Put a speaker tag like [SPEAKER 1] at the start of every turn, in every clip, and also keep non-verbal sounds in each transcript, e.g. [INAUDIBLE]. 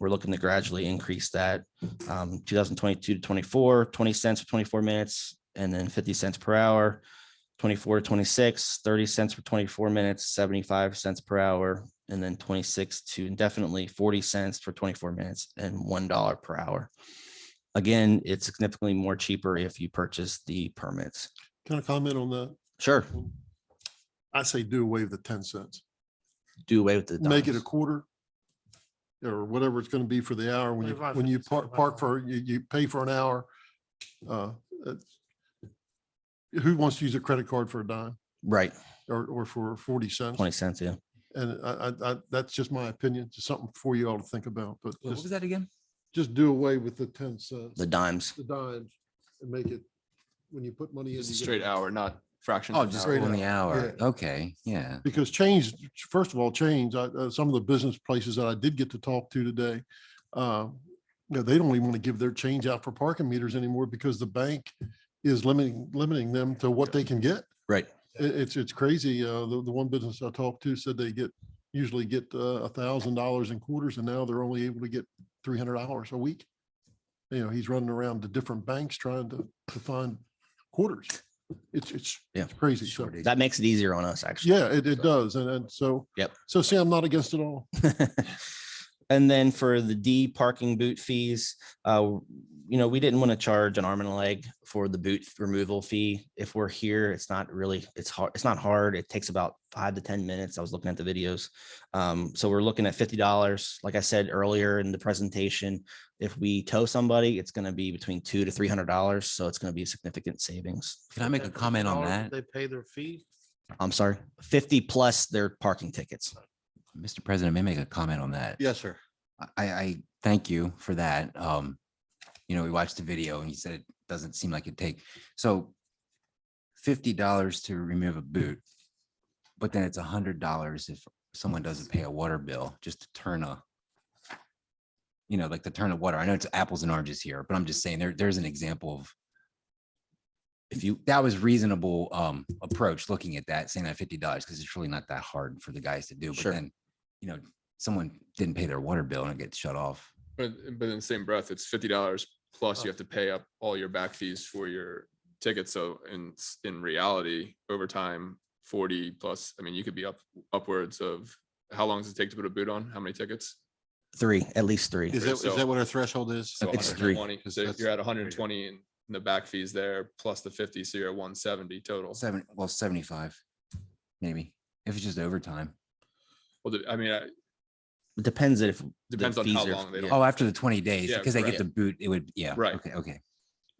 [SPEAKER 1] We're looking to gradually increase that, um, two thousand twenty-two to 24, 20 cents for twenty-four minutes, and then fifty cents per hour. Twenty-four to 26, 30 cents for twenty-four minutes, seventy-five cents per hour, and then twenty-six to indefinitely forty cents for twenty-four minutes and one dollar per hour. Again, it's significantly more cheaper if you purchase the permits.
[SPEAKER 2] Can I comment on that?
[SPEAKER 1] Sure,
[SPEAKER 2] I say do away with the ten cents.
[SPEAKER 1] do away with the.
[SPEAKER 2] Make it a
[SPEAKER 1] dimes.
[SPEAKER 2] quarter or whatever it's going to be for the hour when you,
[SPEAKER 3] Twenty-five
[SPEAKER 2] when you
[SPEAKER 3] cents,
[SPEAKER 2] park,
[SPEAKER 3] twenty-five
[SPEAKER 2] park for, you, you pay for an hour. Uh, it's- Who wants to use a credit card for a dime
[SPEAKER 1] Right,
[SPEAKER 2] or, or for forty cents?
[SPEAKER 1] twenty cents, yeah.
[SPEAKER 2] And I, I, I, that's just my opinion, just something for you all to think about, but
[SPEAKER 4] What was
[SPEAKER 2] just,
[SPEAKER 4] that again?
[SPEAKER 2] just do away with the ten cents,
[SPEAKER 1] The dimes.
[SPEAKER 2] the dimes and make it, when you put money in.
[SPEAKER 5] Just a
[SPEAKER 2] you get-
[SPEAKER 5] straight hour, not fractions.
[SPEAKER 4] Oh,
[SPEAKER 5] of an
[SPEAKER 4] just
[SPEAKER 5] hour.
[SPEAKER 2] Straight
[SPEAKER 4] on the hour.
[SPEAKER 2] yeah.
[SPEAKER 4] Okay, yeah.
[SPEAKER 2] because change, first of all, change, I- uh, some of the business places that I did get to talk to today, uh, you know, they don't even want to give their change out for parking meters anymore because the bank is limiting, limiting them to what they can get.
[SPEAKER 1] Right.
[SPEAKER 2] It- it's, it's crazy. Uh, the, the one business I talked to said they get, usually get uh, a thousand dollars in quarters and now they're only able to get three hundred dollars a week. You know, he's running around to different banks trying to, to find quarters. It's, it's
[SPEAKER 1] Yeah.
[SPEAKER 2] it's crazy. So-
[SPEAKER 4] Shortage.
[SPEAKER 1] That makes it easier on us, actually.
[SPEAKER 2] yeah, it, it does. And, and so.
[SPEAKER 1] Yep.
[SPEAKER 2] So see, I'm not against it all.
[SPEAKER 1] And then for the D parking boot fees, uh, you know, we didn't want to charge an arm and a leg for the boot removal fee. If we're here, it's not really, it's hard, it's not hard. It takes about five to ten minutes. I was looking at the videos. Um, so we're looking at fifty dollars. Like I said earlier in the presentation, if we tow somebody, it's gonna be between two to three hundred dollars. So it's gonna be significant savings.
[SPEAKER 4] Can I make a
[SPEAKER 3] That
[SPEAKER 4] comment on
[SPEAKER 3] dollar
[SPEAKER 4] that?
[SPEAKER 3] They pay their fee.
[SPEAKER 1] I'm sorry, fifty plus their parking tickets.
[SPEAKER 4] Mr. President, may I make a comment on that?
[SPEAKER 5] Yes, sir.
[SPEAKER 4] I, I thank you for that. Um, you know, we watched the video and you said it doesn't seem like it take, so fifty dollars to remove a boot, but then it's a hundred dollars if someone doesn't pay a water bill, just to turn a, you know, like to turn a water. I know it's apples and oranges here, but I'm just saying there, there's an example of if you, that was reasonable, um, approach, looking at that, saying that fifty dollars, because it's really not that hard for the guys to do.
[SPEAKER 1] Sure.
[SPEAKER 4] But then, you know, someone didn't pay their water bill and it gets shut off.
[SPEAKER 5] But, but in the same breath, it's fifty dollars
[SPEAKER 3] Oh.
[SPEAKER 5] plus you have to pay up all your back fees for your ticket. So in, s- in reality, over time, forty plus, I mean, you could be up upwards of, how long does it take to put a boot on? How many tickets?
[SPEAKER 1] Three, at least three.
[SPEAKER 6] Is that, is
[SPEAKER 5] So-
[SPEAKER 6] that what our threshold is?
[SPEAKER 5] So
[SPEAKER 1] It's three.
[SPEAKER 5] 120.
[SPEAKER 6] Because
[SPEAKER 5] So
[SPEAKER 6] that's-
[SPEAKER 5] You're at hundred and twenty and the back fees there, plus the fifty, so you're at one seventy total.
[SPEAKER 4] Seven, well, seventy-five, maybe, if it's just overtime.
[SPEAKER 5] Well, the- I mean, I-
[SPEAKER 1] It Depends if. the
[SPEAKER 5] depends on how
[SPEAKER 1] fees are-
[SPEAKER 5] long they
[SPEAKER 1] yeah.
[SPEAKER 5] don't
[SPEAKER 4] Oh, after the twenty days,
[SPEAKER 5] Yeah,
[SPEAKER 4] because they get
[SPEAKER 5] correct.
[SPEAKER 4] the boot, it would, yeah.
[SPEAKER 5] Right.
[SPEAKER 4] Okay, okay.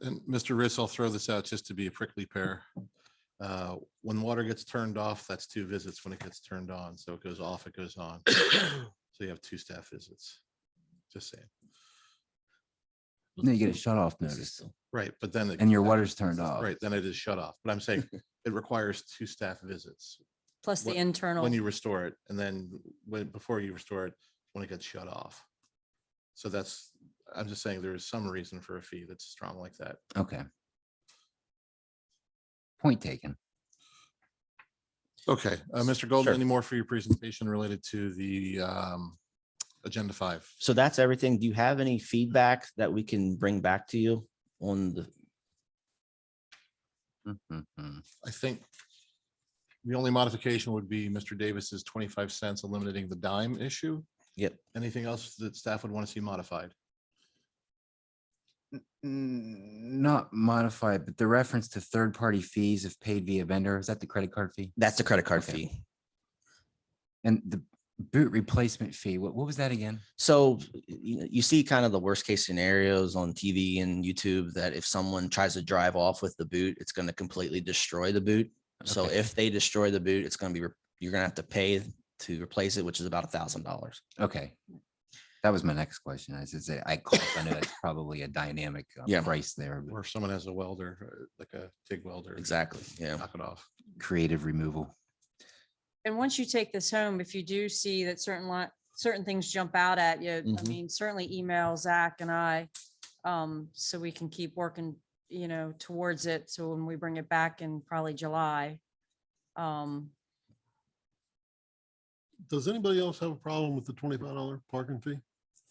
[SPEAKER 6] And Mr. Ritz, I'll throw this out just to be a prickly pear. Uh, When water gets turned off, that's two visits. When it gets turned on, so it goes off, it
[SPEAKER 4] [COUGHS]
[SPEAKER 6] goes on. So you have two staff visits. Just saying.
[SPEAKER 4] No, you get a shut off notice
[SPEAKER 6] Right, but then. it-
[SPEAKER 4] and your water's turned off.
[SPEAKER 6] Right, then it is shut off. But
[SPEAKER 4] [LAUGHS]
[SPEAKER 6] I'm saying it requires two staff visits
[SPEAKER 7] Plus the
[SPEAKER 6] What-
[SPEAKER 7] internal.
[SPEAKER 6] when you restore it and then when, before you restore it, when it gets shut off. So that's, I'm just saying there is some reason for a fee that's strong like that.
[SPEAKER 4] Okay. Point taken.
[SPEAKER 6] Okay, uh, Mr. Golden,
[SPEAKER 1] Sure.
[SPEAKER 6] any more for your presentation related to the um, Agenda 5?
[SPEAKER 1] So that's everything. Do you have any feedback that we can bring back to you on the,
[SPEAKER 4] Mhm.
[SPEAKER 6] I think the only modification would be Mr. Davis's 25 cents eliminating the dime issue.
[SPEAKER 1] Yep.
[SPEAKER 6] Anything else that staff would want to see modified?
[SPEAKER 4] N- Not modified, but the reference to third-party fees if paid via vendor, is that the credit card fee?
[SPEAKER 1] that's the credit card
[SPEAKER 4] Okay.
[SPEAKER 1] fee.
[SPEAKER 4] And the boot replacement fee, what, what was that again?
[SPEAKER 1] So you, you see kind of the worst case scenarios on TV and YouTube that if someone tries to drive off with the boot, it's going to completely destroy the boot. So
[SPEAKER 4] Okay.
[SPEAKER 1] if they destroy the boot, it's going to be, re- you're going to have to pay to replace it, which is about a thousand dollars.
[SPEAKER 4] Okay. That was my next question. I should say, I called, I know that's probably a dynamic uh,
[SPEAKER 1] Yeah.
[SPEAKER 4] price there, but
[SPEAKER 6] Or if someone has a welder, uh, like a TIG welder?
[SPEAKER 1] Exactly. Yeah.
[SPEAKER 6] Knock it off.
[SPEAKER 4] creative removal.
[SPEAKER 7] And once you take this home, if you do see that certain lot, certain things jump out at you, I
[SPEAKER 6] Mm-hmm.
[SPEAKER 1] Mhm.
[SPEAKER 7] mean, certainly email Zach and I. Um, so we can keep working, you know, towards it. So when we bring it back in probably July. Um,
[SPEAKER 2] Does anybody else have a problem with the twenty-five dollar parking fee?